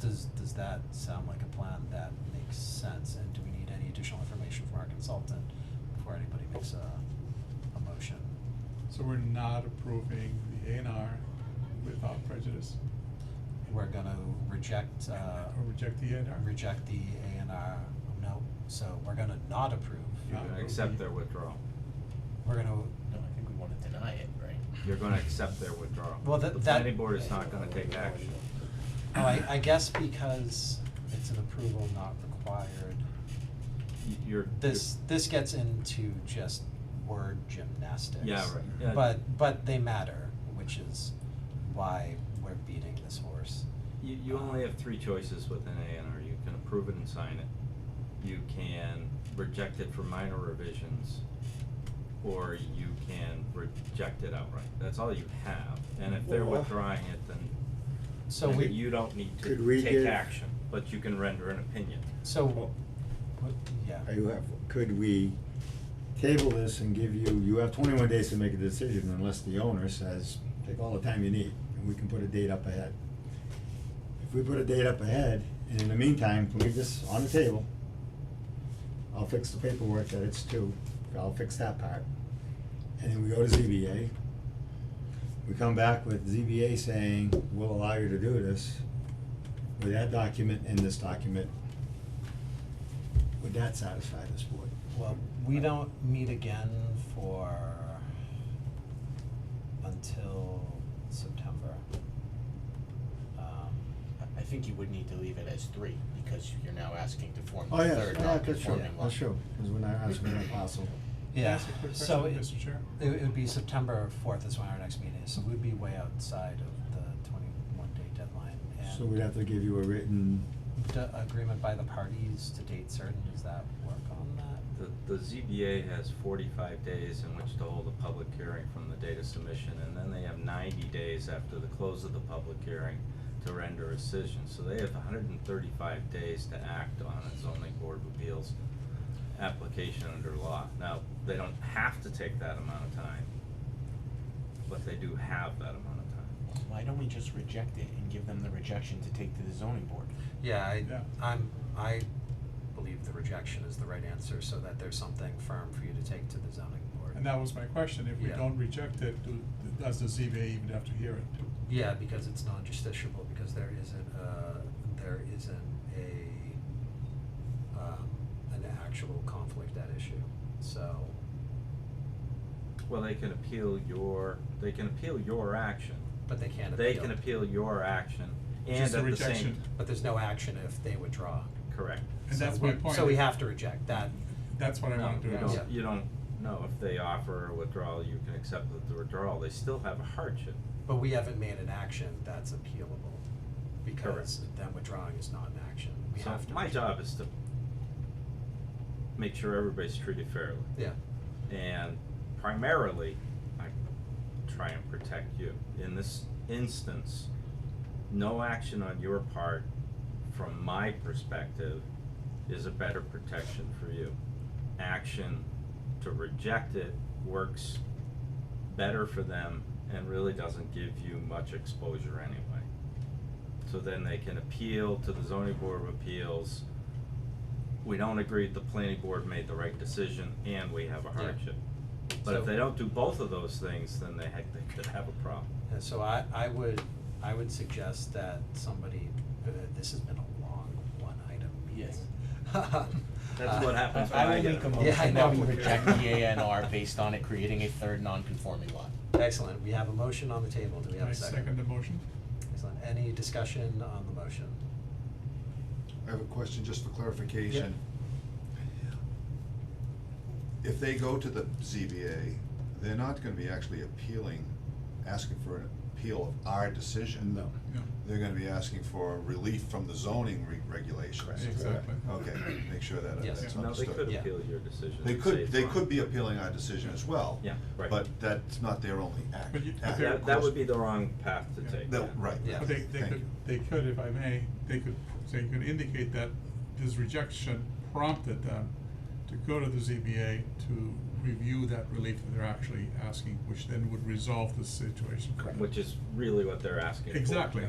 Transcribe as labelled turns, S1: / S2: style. S1: that sound like a plan that makes sense? And do we need any additional information from our consultant before anybody makes a, a motion?
S2: So we're not approving the A and R without prejudice.
S1: We're gonna reject, uh,
S2: Or reject the A and R?
S1: reject the A and R, no, so we're gonna not approve. um,
S2: Yeah.
S3: You're gonna accept their withdrawal.
S1: We're gonna,
S4: No, I think we wanna deny it, right?
S3: You're gonna accept their withdrawal.
S1: Well, that-
S3: The
S1: that-
S3: planning board is not gonna take action.
S1: oh, I, I guess because it's an approval not required.
S3: Y- You're.
S1: This, this gets into just word gymnastics.
S3: Yeah, right, yeah.
S1: But, but they matter, which is why we're beating this horse.
S3: You, you only have three choices with an A and R. You can approve it and sign it. You can reject it for minor revisions. Or you can reject it outright. That's all you have. And if they're
S5: Well-
S3: withdrawing it, then
S1: So
S3: then
S1: we,
S3: you don't need
S5: Could we
S3: to take
S5: give-
S3: action, but you can render an opinion.
S1: so, what, yeah,
S5: You have, could we table this and give you, you have twenty-one days to make a decision unless the owner says, take all the time you need, and we can put a date up ahead. If we put a date up ahead, and in the meantime, leave this on the table, I'll fix the paperwork that it's due, I'll fix that part. And then we go to ZBA. We come back with ZBA saying, we'll allow you to do this, with that document and this document. Would that satisfy this board?
S1: well, we don't meet again for, until September. Um,
S4: I, I think you would need to leave it as three, because you're now asking to form
S5: Oh,
S4: the
S5: yes,
S4: third
S5: yeah, that's true,
S4: non-conforming lot.
S5: that's true, because we're not asking that possible.
S2: Can I
S1: Yeah,
S2: ask a quick
S1: so
S2: question,
S1: it,
S2: Mr. Chair?
S1: it would be September fourth is when our next meeting is, so we'd be way outside of the twenty-one day deadline.
S5: So we'd have to give you a written,
S1: And d- agreement by the parties to date certain, does that work on that?
S3: The, the ZBA has forty-five days in which to hold a public hearing from the date of submission, and then they have ninety days after the close of the public hearing to render a decision, so they have hundred and thirty-five days to act on a zoning board of appeals application under law. Now, they don't have to take that amount of time, but they do have that amount of time.
S4: Why don't we just reject it and give them the rejection to take to the zoning board?
S1: Yeah, I,
S2: Yeah.
S1: I'm, I believe the rejection is the right answer, so that there's something firm for you to take to the zoning board.
S2: And that was my question, if we
S1: Yeah.
S2: don't reject it, do, does the ZBA even have to hear it?
S1: Yeah, because it's non-justiciable, because there isn't a, there isn't a, um, an actual conflict at issue, so.
S3: Well, they can appeal your, they can appeal your action,
S1: But they can't appeal.
S3: they can appeal your action, and at
S2: Just
S3: the
S2: a
S3: same.
S2: rejection.
S1: But there's no action if they withdraw.
S3: Correct.
S2: And
S1: So
S2: that's my
S1: we-
S2: point.
S1: So we have to reject that.
S2: That's what I
S3: No,
S2: wanna do.
S3: you
S1: Yeah.
S3: don't, you don't, no, if they offer a withdrawal, you can accept the withdrawal, they still have a hardship.
S1: But we haven't made an action that's appealable because then withdrawing is not an action. We
S3: So
S1: have to.
S3: my
S1: withdraw.
S3: job is to make sure everybody's treated fairly,
S1: Yeah,
S3: and primarily, I try and protect you. In this instance, no action on your part, from my perspective, is a better protection for you. Action to reject it works better for them and really doesn't give you much exposure anyway. So then they can appeal to the zoning board of appeals. We don't agree, the planning board made the right decision and we have a
S1: Yeah.
S3: hardship. But if
S1: So-
S3: they don't do both of those things, then they ha- they could have a problem.
S1: and so I, I would, I would suggest that somebody, uh, this has been a long one item meeting.
S4: Yes.
S3: That's what
S1: Uh,
S3: happens
S4: I-
S3: when I get.
S4: I
S3: it.
S4: will make
S1: Yeah, I
S4: a motion that
S1: know.
S4: we reject the A N R based on it creating a third non-conforming lot.
S1: Excellent, we have a motion on the table, do we have
S2: I
S1: a second?
S2: second the motion.
S1: Excellent, any discussion on the motion?
S6: I have a question just for clarification. If they go to the ZBA, they're not gonna be actually appealing, asking for an appeal of our decision.
S5: no.
S2: Yeah,
S6: They're gonna be asking for relief from the zoning re- regulations.
S2: Exactly.
S6: Okay, make sure that uh,
S1: Yes.
S6: that's
S3: No, they
S6: understood.
S3: could
S1: Yeah.
S3: appeal your decision.
S6: They
S3: and
S6: could,
S3: save
S6: they
S3: time.
S6: could be appealing our decision as well.
S3: Yeah, right.
S6: But that's not their only act.
S2: But you- but
S6: act,
S2: they're-
S6: of
S3: That, that
S6: course.
S3: would be the wrong path to
S2: Yeah.
S3: take.
S6: No,
S3: yeah.
S6: right.
S1: Yeah.
S2: But they, they
S6: Thank
S2: could,
S6: you.
S2: they could, if I may, they could, they could indicate that this rejection prompted them to go to the ZBA to review that relief that they're actually asking, which then would resolve the situation. for them.
S3: Which is really what they're asking for.
S2: Exactly.